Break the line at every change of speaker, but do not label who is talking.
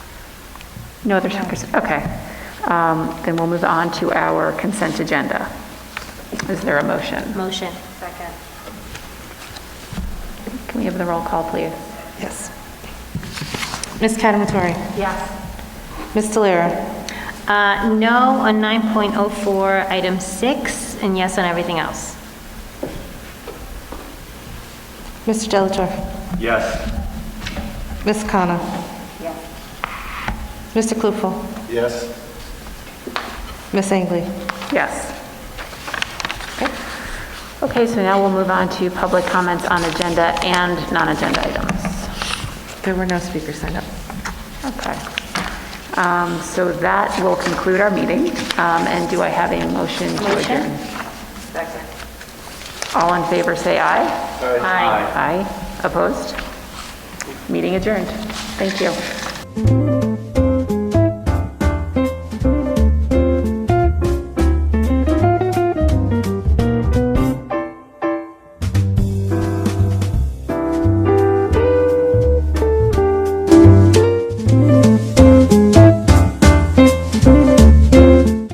No other takers, okay. Um, Then we'll move on to our consent agenda. Is there a motion?
Motion. Second.
Can we have the roll call, please?
Yes. Ms. Catamatori?
Yes.
Ms. Delira?
Uh, No on 9.04, item 6, and yes on everything else.
Mr. Delatorre?
Yes.
Ms. Connor? Mr. Klufel?
Yes.
Ms. Angley?
Yes. Okay, so now we'll move on to public comments on agenda and non-agenda items.
There were no speakers signed up.
Okay. Um, So that will conclude our meeting. Um, And do I have a motion to adjourn? All in favor, say aye.
Aye.
Aye. Opposed? Meeting adjourned. Thank you.